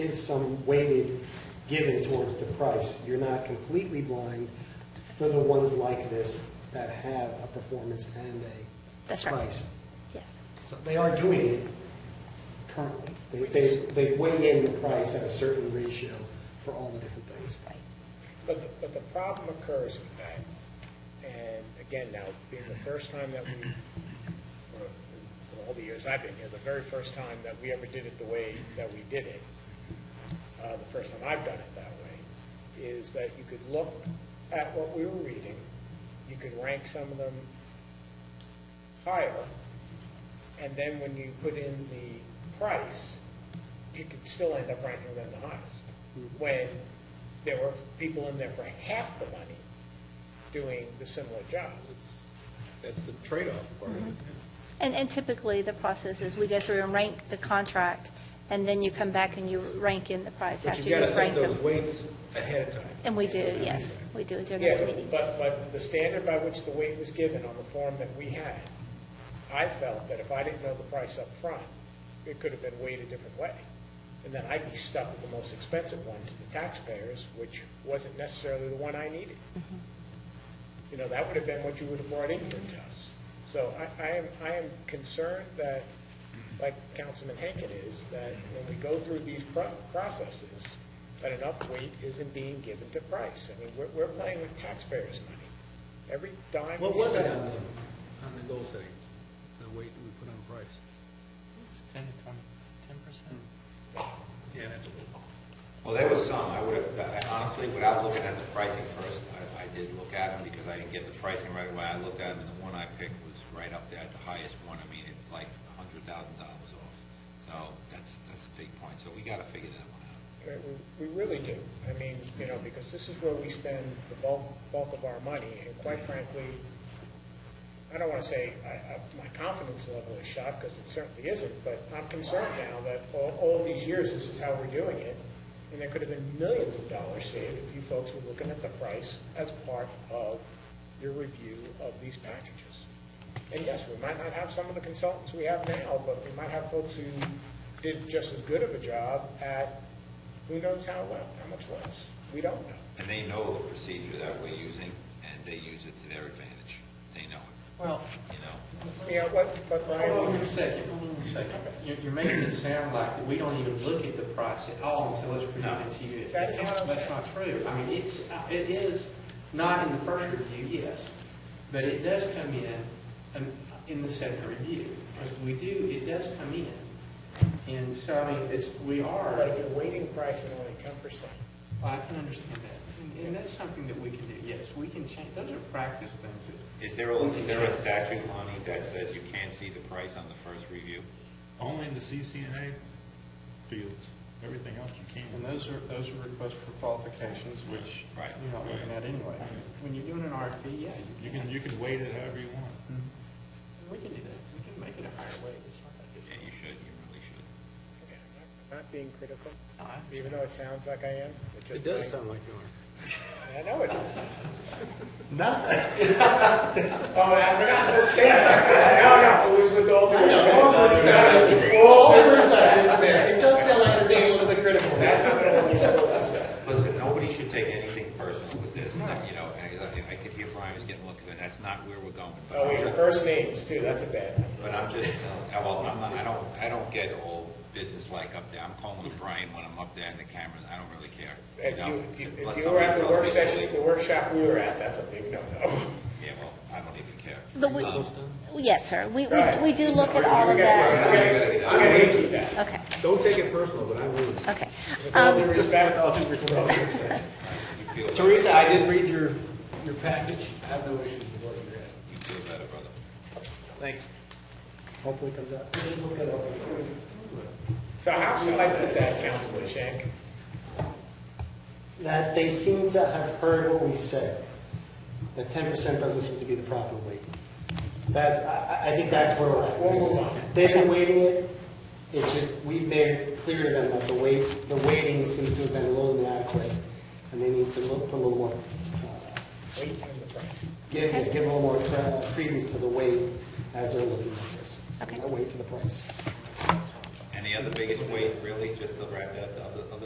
is some weighted given towards the price. You're not completely blind for the ones like this that have a performance and a That's right. price. Yes. So they are doing it currently. They, they, they weigh in the price at a certain ratio for all the different things. Right. But, the- but the problem occurs in that, and again, now, being the first time that we, or in all the years I've been here, the very first time that we ever did it the way that we did it, uh, the first time I've done it that way, is that you could look at what we were reading, you could rank some of them higher, and then when you put in the price, you could still end up ranking them the highest. When there were people in there for half the money doing the similar job. That's, that's the trade-off part of it. And, and typically, the process is we go through and rank the contract, and then you come back and you rank in the price But after you you've gotta set ranked those them. weights ahead of time. And we do, yes, we do it during those Yeah, meetings. but, but the standard by which the weight was given on the form that we had, I felt that if I didn't know the price up front, it could have been weighed a different way. And then I'd be stuck with the most expensive one to the taxpayers, which wasn't necessarily the one I needed. You know, that would have been what you would have brought in here to us. So I, I am, I am concerned that, like Councilman Henkin is, that when we go through these pro- processes, that enough weight isn't being given to price. I mean, we're, we're playing with taxpayers' money. Every dime What we was it on spend. the, on the goal setting, the weight that we put on price? It's ten to twenty, ten percent. Yeah, that's a little. Well, there was some, I would have, I honestly, without looking at the pricing first, I, I did look at them because I didn't get the pricing right away. I looked at them and the one I picked was right up there, the highest one, I mean, it's like a hundred thousand dollars off. So that's, that's a big point, so we gotta figure that one out. Uh, We we really do. I mean, you know, because this is where we spend the bulk, bulk of our money, and quite frankly, I don't want to say I, I, my confidence level is shot, because it certainly isn't, but I'm concerned now that all, all these years, this is how we're doing it, and there could have been millions of dollars saved if you folks were looking at the price as part of your review of these packages. And yes, we might not have some of the consultants we have now, but we might have folks who did just as good of a job at who knows how well, how much less. We don't know. And they know the procedure that we're using, and they use it to their advantage, they know it, Hmm. Well, you know? Yeah, what, but hold on Brian, a second, hold on a second. You're, you're making it sound like that we don't even look at the price at all until it's presented to you. That's what I'm That's not true. I mean, it's, it is not in the first review, yes, but it does come in, um, in the second review. As we do, it does come in. And so, I mean, it's, we but are, if you're waiting price and only ten percent, I can understand that. And- And that's something that we can do, yes, we can change, those are practice things that Is there a, is there a statute, Lonnie, that says you can't see the price on the first review? Only in the CCNA fields, everything else you And can. those are, those are requests for qualifications, which Right. you're not looking at anyway. When you're doing an RFP, yeah, You can, you can weight it however you want. We can do that, we can make it a higher weight, it's not that Yeah, you should, you really should. okay, I'm not not being critical, big. even though it sounds like I am. it's just It does my- sound like you are. I know it is. Not Oh, I'm not supposed to say that. No, no, it was with all due all oversight is there. It does sound like you're being a little bit critical. That's not what you're supposed to say. Listen, nobody should take anything personal with this, you know, and I, I could hear Brian was getting looked at, that's not where we're going. But Oh, I'm wait, your just- first names too, that's a bad one. But I'm just, uh, well, I'm not, I don't, I don't get all business-like up there, I'm calling to Brian when I'm up there in the camera, I don't really care. If know, you, if you, unless if you were at the somebody tells work me session, something. the workshop we were at, that's a big no-no. Yeah, well, I don't even care. The we- Um, Yes, sir. We, we, Right. we do look We're at all gonna of that. we're gonna- we're gonna keep that. Okay, Don't take it personal, but I will. okay. Um, With all due respect, I'll do You feel, better- Teresa, I did read your, your package. I have no issues with what you had. you feel better, brother. Thanks. Hopefully it comes out. Look it up. So how should I put that, Councilman Shank? that they seem to have heard what we said. That ten percent doesn't seem to be the proper weight. That's, I, I- I think that's where we're We'll move on. at. They've been waiting it, it's just, we've made it clear to them that the weight, the waiting seems to have been a little inadequate, and they need to look for a little more, uh, Wait and the price. give, give a little more uh, credence to the weight as they're looking at this. Okay. Not wait for the price. And they the other biggest weight, really, just to wrap that up, the other